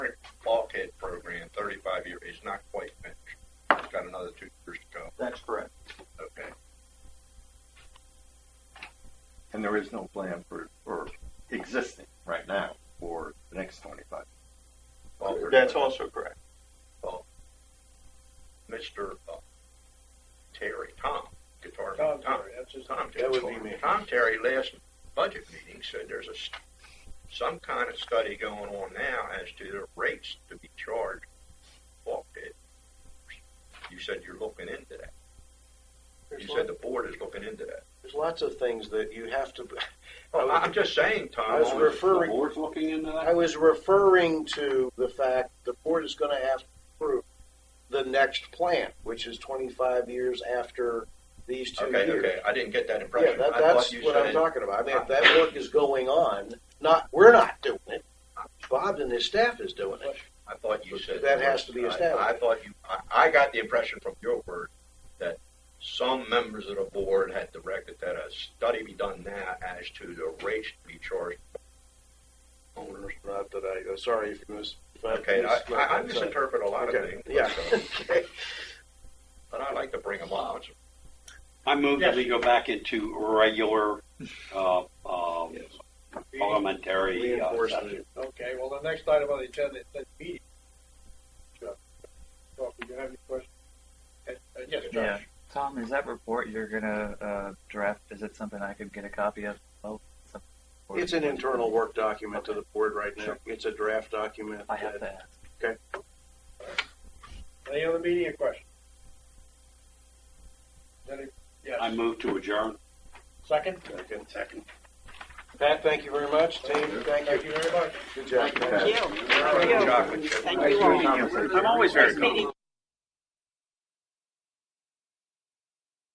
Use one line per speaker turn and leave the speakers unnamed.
is no plan for, for existing right now for the next twenty-five. Well, for-
That's also correct.
Well, Mr. uh, Terry, Tom, guitar
Tom
Tom,
Terry, that's his
Tom
name.
Terry.
That would be me.
Tom Terry last budget meeting said there's a, s- some kind of study going on now as to the rates to be charged off bid. You said you're looking into that.
There's
You
lot-
said the board is looking into that.
There's lots of things that you have to, I
Well,
was-
I'm just saying,
I
Tom,
was
on-
refer-
The board's looking into
I
that?
was referring to the fact the board is gonna have to approve the next plan, which is twenty-five years after these two
okay,
years.
okay, I didn't get that
Yeah,
impression.
that,
I
that's
thought you
what I'm
said-
talking about. I mean, if that work is going on, not, we're not doing it. Bob and his staff is doing it.
I thought you said
That has to be
I-
established.
I thought you. I, I got the impression from your word that some members of the board had directed that a study be done now as to the rates to be charged. Owners.
Not that I, uh, sorry if you mis. if I
Okay, I,
mis-
I, I misinterpret a lot of
Okay,
things.
yeah.
but, uh,
Okay.
but I like to bring them up.
I move
Yes.
that we go back into regular, uh, uh,
Yes.
parliamentary uh,
Reinforcement.
session.
Okay, well, the next item on the agenda is that meeting. Chuck, Chuck, do you have any questions? Uh, uh, Yes,
Yeah.
Josh.
Tom, is that report you're gonna uh, draft? Is it something I could get a copy of? Oh, it's, a- or-
It's an internal work document to the board right now.
Sure.
It's a draft document.
I have
that-
to ask.
Any other meeting or question? Any,
I
yes,
move to adjourn.
second?
Second.
Second.
Pat, thank you very much. Team, thank
Thank
you.
you very much.
Good job.
Thank
you.
Chocolate chip.
Thank you all.
Nice meeting you.
I'm always very
Nice meeting
comfortable.